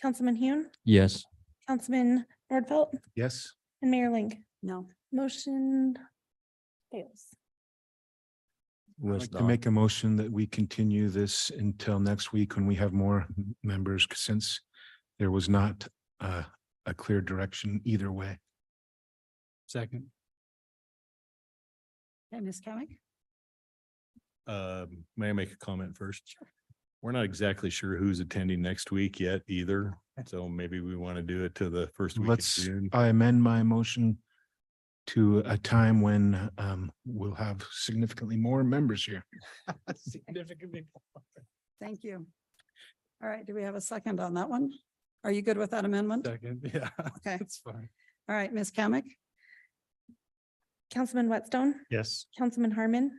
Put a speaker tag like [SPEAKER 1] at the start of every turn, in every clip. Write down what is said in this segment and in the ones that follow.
[SPEAKER 1] Councilman Hune,
[SPEAKER 2] Yes.
[SPEAKER 1] Councilman Nordfelt,
[SPEAKER 3] Yes.
[SPEAKER 1] and Mayor Ling.
[SPEAKER 4] No.
[SPEAKER 1] Motion fails.
[SPEAKER 3] I'd like to make a motion that we continue this until next week when we have more m- members, 'cause since there was not uh, a clear direction either way.
[SPEAKER 5] Second.
[SPEAKER 4] And Ms. Kamic?
[SPEAKER 5] Um, may I make a comment first? We're not exactly sure who's attending next week yet either, so maybe we want to do it to the first week of
[SPEAKER 3] Let's,
[SPEAKER 5] June.
[SPEAKER 3] I amend my motion to a time when um, we'll have significantly more members here.
[SPEAKER 4] Thank you. All right, do we have a second on that one? Are you good with that amendment?
[SPEAKER 5] Second, yeah.
[SPEAKER 4] Okay.
[SPEAKER 5] That's fine.
[SPEAKER 4] All right, Ms. Kamic?
[SPEAKER 1] Councilman Whitstone,
[SPEAKER 5] Yes.
[SPEAKER 1] Councilman Harmon,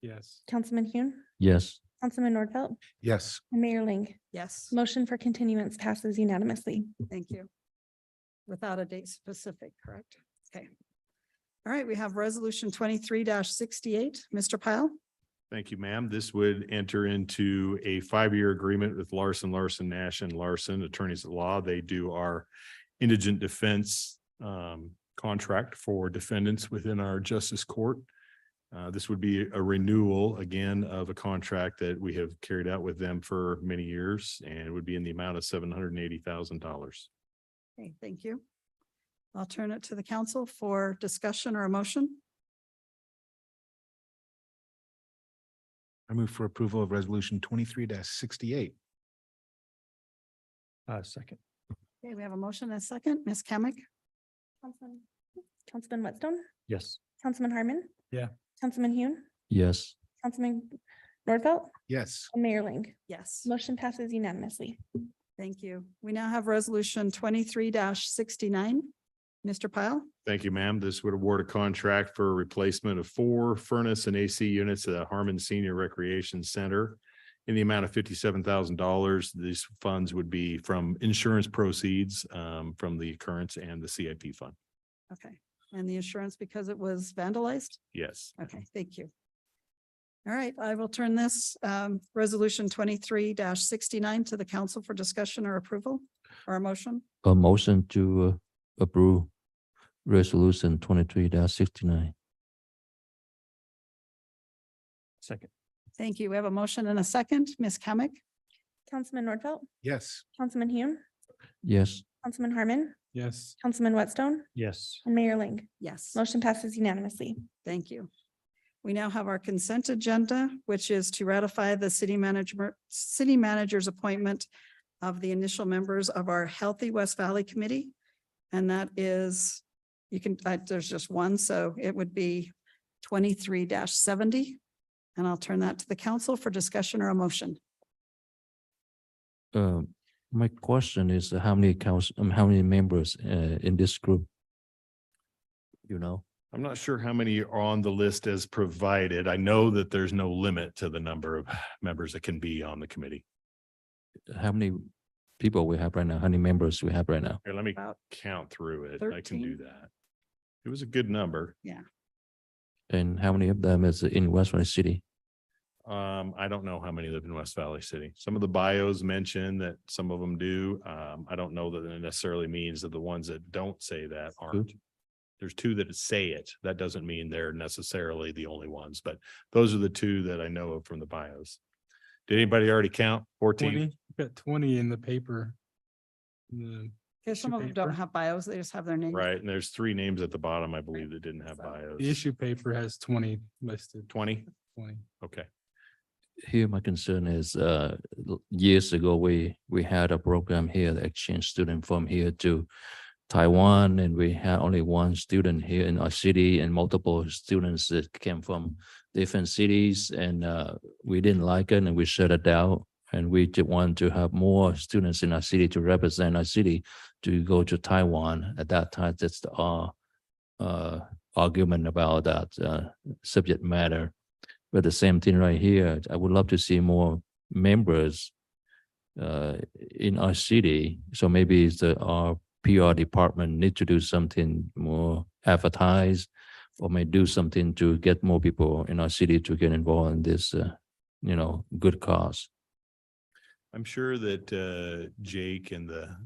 [SPEAKER 5] Yes.
[SPEAKER 1] Councilman Hune,
[SPEAKER 2] Yes.
[SPEAKER 1] Councilman Nordfelt,
[SPEAKER 3] Yes.
[SPEAKER 1] and Mayor Ling.
[SPEAKER 4] Yes.
[SPEAKER 1] Motion for continuance passes unanimously.
[SPEAKER 4] Thank you. Without a date specific, correct? Okay. All right, we have resolution twenty-three sixty-eight. Mr. Pyle?
[SPEAKER 5] Thank you, ma'am. This would enter into a five-year agreement with Larson, Larson, Nash and Larson Attorneys at Law. They do our indigent defense um, contract for defendants within our justice court. Uh, This would be a renewal again of a contract that we have carried out with them for many years and it would be in the amount of seven hundred and eighty thousand dollars.
[SPEAKER 4] Okay, thank you. I'll turn it to the council for discussion or a motion.
[SPEAKER 3] I move for approval of resolution twenty-three sixty-eight.
[SPEAKER 2] Uh, second.
[SPEAKER 4] Okay, we have a motion and a second. Ms. Kamic?
[SPEAKER 1] Councilman- Councilman Whitstone,
[SPEAKER 2] Yes.
[SPEAKER 1] Councilman Harmon.
[SPEAKER 5] Yeah.
[SPEAKER 1] Councilman Hune,
[SPEAKER 2] Yes.
[SPEAKER 1] Councilman Nordfelt,
[SPEAKER 3] Yes.
[SPEAKER 1] and Mayor Ling.
[SPEAKER 4] Yes.
[SPEAKER 1] Motion passes unanimously.
[SPEAKER 4] Thank you. We now have resolution twenty-three sixty-nine. Mr. Pyle?
[SPEAKER 5] Thank you, ma'am. This would award a contract for a replacement of four furnace and AC units at Harmon Senior Recreation Center in the amount of fifty-seven thousand dollars. These funds would be from insurance proceeds um, from the occurrence and the CIP fund.
[SPEAKER 4] Okay, and the insurance because it was vandalized?
[SPEAKER 5] Yes.
[SPEAKER 4] Okay, thank you. All right, I will turn this um resolution twenty-three sixty-nine to the council for discussion or approval or a motion.
[SPEAKER 2] A motion to uh, approve resolution twenty-three sixty-nine. Second.
[SPEAKER 4] Thank you. We have a motion and a second. Ms. Kamic?
[SPEAKER 1] Councilman Nordfelt,
[SPEAKER 3] Yes.
[SPEAKER 1] Councilman Hune,
[SPEAKER 2] Yes.
[SPEAKER 1] Councilman Harmon,
[SPEAKER 5] Yes.
[SPEAKER 1] Councilman Whitstone,
[SPEAKER 2] Yes.
[SPEAKER 1] and Mayor Ling.
[SPEAKER 4] Yes.
[SPEAKER 1] Motion passes unanimously.
[SPEAKER 4] Thank you. We now have our consent agenda, which is to ratify the city management, city manager's appointment of the initial members of our Healthy West Valley Committee. And that is, you can, uh, there's just one, so it would be twenty-three seventy. And I'll turn that to the council for discussion or a motion.
[SPEAKER 2] Um, my question is uh, how many counts, um, how many members, uh, in this group? You know?
[SPEAKER 5] I'm not sure how many are on the list as provided. I know that there's no limit to the number of members that can be on the committee.
[SPEAKER 2] how many people we have right now, how many members we have right now?
[SPEAKER 5] Here, let me
[SPEAKER 4] About
[SPEAKER 5] count through it. I can do
[SPEAKER 4] 13.
[SPEAKER 5] that. It was a good number.
[SPEAKER 2] And how many of them is in West Valley City?
[SPEAKER 5] Um, I don't know how many live in West Valley City. Some of the bios mention that some of them do. Um, I don't know that it necessarily means that the ones that don't say that aren't. There's two that say it. That doesn't mean they're necessarily the only ones, but those are the two that I know of from the bios. Did anybody already count? Fourteen?
[SPEAKER 6] Twenty, got twenty in the paper. The-
[SPEAKER 4] Because some
[SPEAKER 6] Issue
[SPEAKER 4] of them don't
[SPEAKER 6] paper.
[SPEAKER 4] have bios, they just have their name.
[SPEAKER 5] Right, and there's three names at the bottom, I believe, that didn't have
[SPEAKER 4] So,
[SPEAKER 5] bios.
[SPEAKER 6] The issue paper has twenty listed,
[SPEAKER 5] Twenty?
[SPEAKER 6] twenty.
[SPEAKER 5] Okay,
[SPEAKER 2] Here, my concern is, uh, l- years ago, we, we had a program here, the exchange student from here to Taiwan, and we had only one student here in our city and multiple students that came from different cities, and, uh, we didn't like it and we shut it down. And we did want to have more students in our city to represent our city to go to Taiwan. At that time, that's the, uh, uh, argument about that, uh, subject matter. But the same thing right here, I would love to see more members uh, in our city. So maybe it's the, our PR department need to do something more advertised or may do something to get more people in our city to get involved in this, uh, you know, good cause.
[SPEAKER 5] I'm sure that uh Jake and the